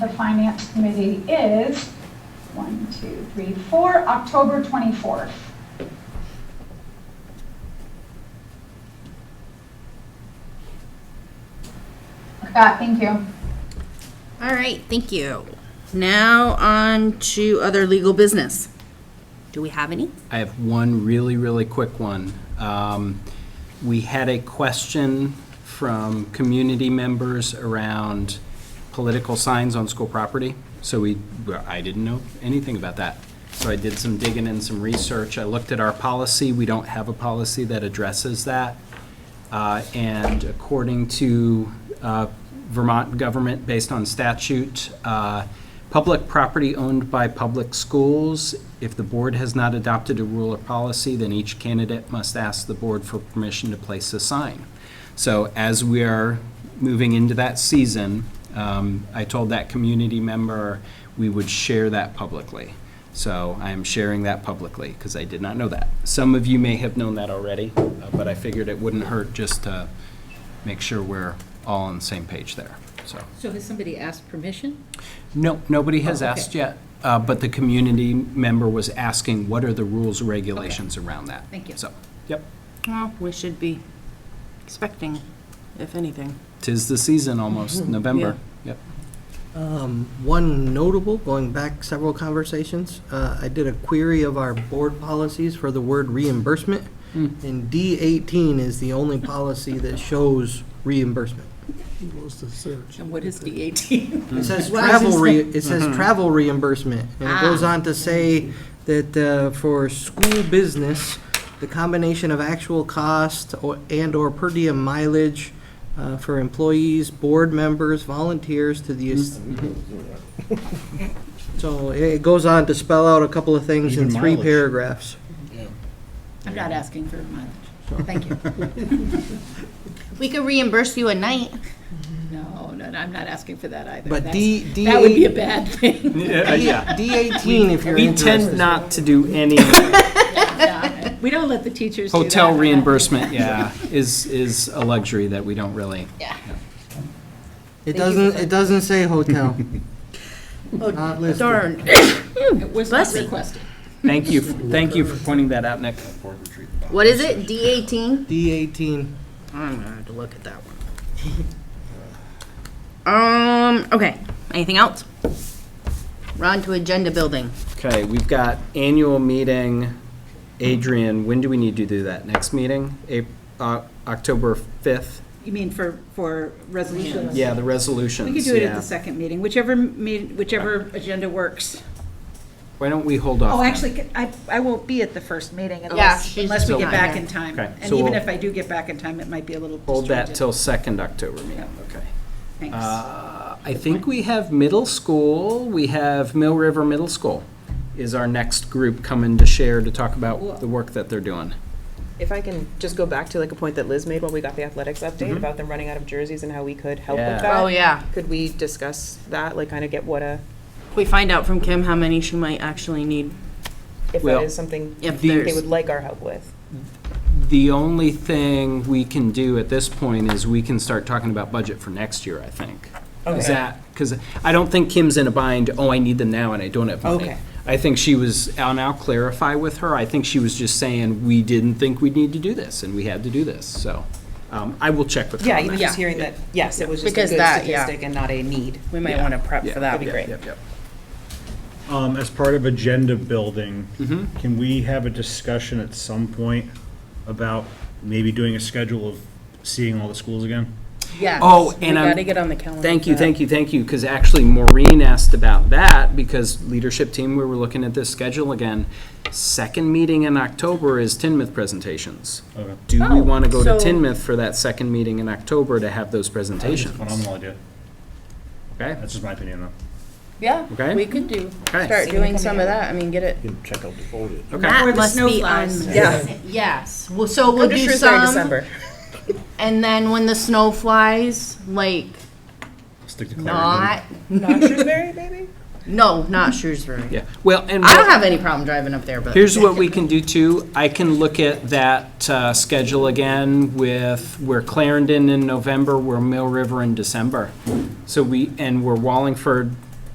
the Finance Committee is, one, two, three, four, October 24th. Scott, thank you. All right, thank you. Now on to other legal business. Do we have any? I have one really, really quick one. Um, We had a question from community members around political signs on school property. So we, well, I didn't know anything about that. So I did some digging and some research. I looked at our policy. We don't have a policy that addresses that. Uh, And according to uh, Vermont government, based on statute, uh, public property owned by public schools, if the board has not adopted a rule or policy, then each candidate must ask the board for permission to place a sign. So as we are moving into that season, um, I told that community member we would share that publicly. So I am sharing that publicly because I did not know that. Some of you may have known that already, uh, but I figured it wouldn't hurt just to make sure we're all on the same page there, so. So has somebody asked permission? No, nobody has Oh, okay. asked yet, uh, but the community member was asking, what are the rules, regulations around that? Thank you. So, yep, Well, we should be expecting, if anything. tis the season almost, November, yep. Um, One notable, going back several conversations, uh, I did a query of our board policies for the word reimbursement, and D eighteen is the only policy that shows reimbursement. And what is the 18? Mm-hmm. It says Well, I was travel, gonna re- it says travel reimbursement, and it goes Ah. on to say that uh, for school business, the combination of actual cost or- and/or per diem mileage uh, for employees, board members, volunteers to the. es- Mm-hmm. So it goes on to spell out a couple of things in three paragraphs. I'm not asking for mileage. Thank you. We could reimburse you a night. No, no, no, I'm not asking for that either. But That's- D, D. That would be a bad thing. Uh, Yeah. D eighteen, if you're We interested. tend not to do any No, We don't let the teachers do that. hotel reimbursement, yeah, is, is a luxury that we don't really. It doesn't, it doesn't say hotel. Not listed. Darn. It was not Bless you. requested. Thank you, thank you for pointing that out, Nick. What is it? D eighteen? D eighteen. I'm gonna have to look at that one. Um, okay, anything else? We're on to agenda building. Okay, we've got annual meeting. Adrian, when do we need to do that? Next meeting? Ap- uh, October 5th? You mean for, for resolutions? Yeah, the resolutions. We could do it yeah. at the second meeting, whichever, me- whichever agenda works. Why don't we hold off? Oh, then? actually, I, I won't be at the first meeting she's unless, unless we still get not back here. in time. Okay, And so even we'll- if I do get back in time, it might be a little Hold that disjointed. till 2nd October meeting, okay. Thanks. Uh, I think we have middle school, we have Mill River Middle School is our next group coming to share to talk about the work that they're doing. If I can just go back to like a point that Liz made while we got the athletics update about them running out of jerseys and how we could help Mm-hmm. Yeah. with that. Oh, yeah. Could we discuss that, like kind of get what a, We find out from Kim how many she might actually need. if Well, that is something If they there's- would like our help with? The only thing we can do at this point is we can start talking about budget for next year, I think. Is Okay. that, because I don't think Kim's in a bind, oh, I need them now and I don't have money. Okay. I think she was, I'll now clarify with her, I think she was just saying, we didn't think we'd need to do this and we had to do this, so. um, I will check with her Yeah, on even that. just hearing that, yes, it was just a Because good that, yeah. statistic and not a need. We might wanna prep Yeah. for that. That'd be great. Yep, yep. Um, as part of agenda building, can we have a discussion at some point about maybe doing a schedule of seeing all the schools again? Yes. Oh, and I'm. We gotta get on the calendar. Thank for you, that. thank you, thank you, because actually Maureen asked about that, because leadership team, we were looking at this schedule again. Second meeting in October is Tinmouth presentations. Okay. Do we Oh, want to go to so- Tinmouth for that second meeting in October to have those That's a presentations? phenomenal idea. Okay, That's just my opinion, though. Yeah, Okay. we could do, Okay. start See what doing can some be of that, I mean, get it. check out the folder. okay. the must snow be on- flies. Yeah. Yes, well, so we'll Come to do Shrewsbury in some, December. and then when the snow flies, like, Stick to clarity. not, Not Shrewsbury, maybe? no, not Shrewsbury. Yeah, well, and. I what- don't have any problem driving up there, but. Here's what we can do too. I can look at that uh, schedule again with, we're Clarendon in November, we're Mill River in December. So we, and we're Wallingford